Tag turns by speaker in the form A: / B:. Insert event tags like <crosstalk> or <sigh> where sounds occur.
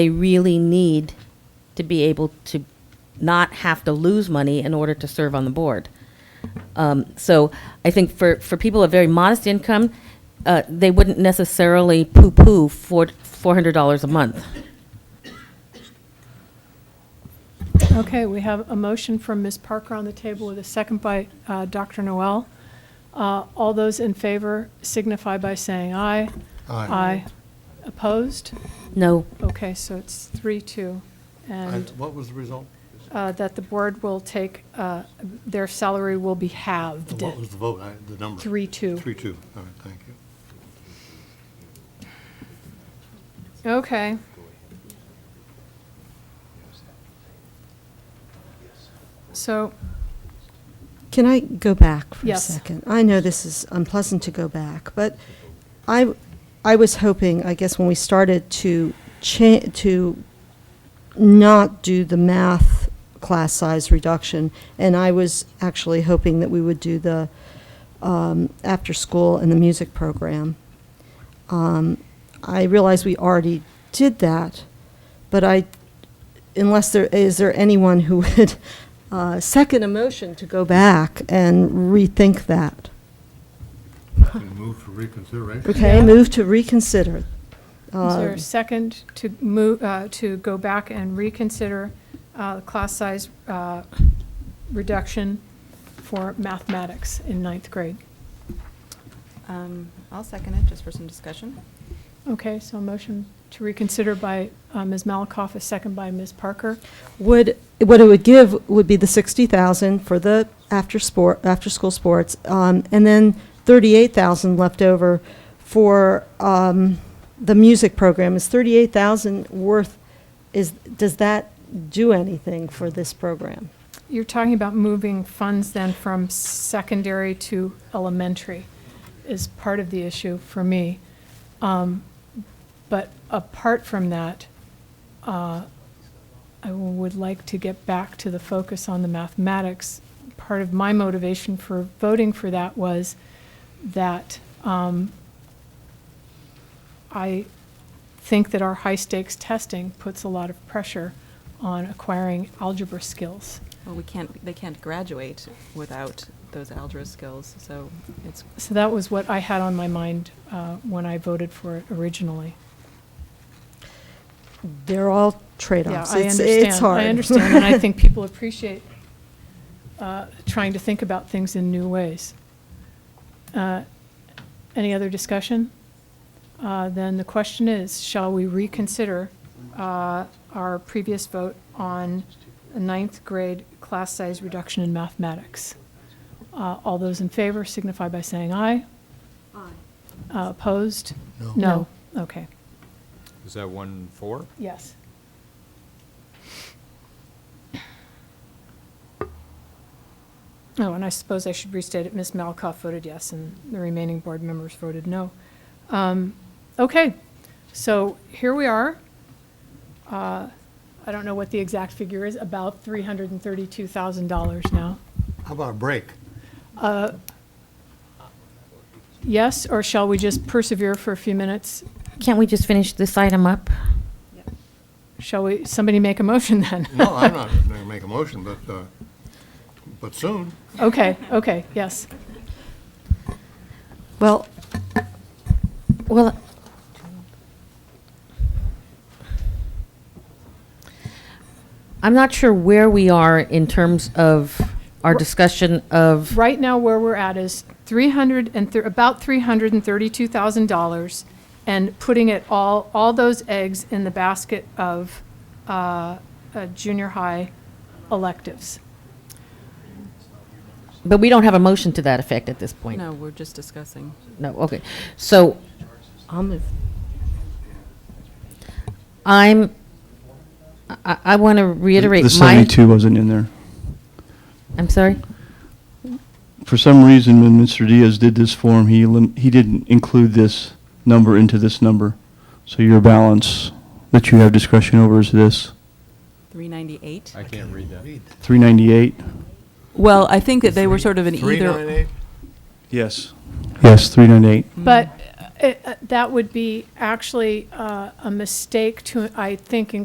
A: they really need to be able to not have to lose money in order to serve on the board. Um, so I think for, for people of very modest income, uh, they wouldn't necessarily poo-poo four, $400 a month.
B: Okay, we have a motion from Ms. Parker on the table with a second by uh, Dr. Noel. Uh, All those in favor signify by saying aye. Aye. Opposed?
A: No,
B: Okay, so it's three, two.
C: And
B: And
C: what was the result?
B: Um, uh, that the board will take, uh, their salary will be halved.
C: What was the vote, I- the number?
B: Three, two.
C: Three, two, all right, thank you.
B: Okay. So,
D: Can I go back for a
B: Yes.
D: second? I know this is unpleasant to go back, but I, I was hoping, I guess, when we started to cha- to not do the math class size reduction, and I was actually hoping that we would do the um, after school and the music program. Um, I realize we already did that, but I unless there, is there anyone who would <laughs> uh, second a motion to go back and rethink that?
C: Can move for reconsideration?
D: Okay,
B: Yeah.
D: move to reconsider. Um,
B: is there a second to move, uh, to go back and reconsider uh, the class size uh, reduction for mathematics in ninth grade?
E: Um, I'll second it, just for some discussion.
B: Okay, so a motion to reconsider by uh, Ms. Malakoff, a second by Ms. Parker.
D: Would, what it would give would be the 60,000 for the after sport, after-school sports, um, and then 38,000 left over for um, the music program. Is 38,000 worth, is, does that do anything for this program?
B: You're talking about moving funds then from secondary to elementary is part of the issue for me. Um, But apart from that, uh, I would like to get back to the focus on the mathematics. Part of my motivation for voting for that was that um, I think that our high-stakes testing puts a lot of pressure on acquiring algebra skills.
E: Well, we can't, they can't graduate without those algebra skills, so it's,
B: So that was what I had on my mind uh, when I voted for it originally.
D: They're all
B: Yeah,
D: trade-offs.
B: I
D: It's-
B: understand.
D: It's hard.
B: I understand, and I
D: <laughs>
B: think people appreciate uh, trying to think about things in new ways. Uh, Any other discussion? Uh, Then the question is, shall we reconsider uh, our previous vote on a ninth grade class size reduction in mathematics? Uh, All those in favor signify by saying aye. Aye. Opposed?
C: No.
B: No, okay,
F: Is that one four?
B: yes. Oh, and I suppose I should restate it, Ms. Malkoff voted yes, and the remaining board members voted no. Um, Okay, so here we are. Uh, I don't know what the exact figure is, about $332,000 now. Uh,
C: How about a break?
B: Yes, or shall we just persevere for a few minutes?
A: can't we just finish this item up?
B: Shall we, somebody make a motion then?
C: No,
B: <laughs>
C: I'm not going to make a motion, but, uh, but soon.
B: Okay, okay, yes.
D: Well,
A: Well, I'm not sure where we are in terms of our discussion of,
B: Right now, where we're at is 300 and, thir- about $332,000, and putting it all, all those eggs in the basket of uh, uh, junior high electives.
A: but we don't have a motion to that effect at this point.
E: no, we're just discussing.
A: No, okay. So
D: I'll move.
A: I'm, I, I want to reiterate my.
G: The 72 wasn't in there.
A: I'm sorry?
G: For some reason, when Mr. Diaz did this form, he, elim- he didn't include this number into this number. So your balance that you have discretion over is this,
E: 398?
F: I can't read that.
G: 398?
E: Well, I think that they were sort of an either.
C: 398?
G: Yes. Yes, 398.
B: But uh, it- uh, that would be actually uh, a mistake to, I think,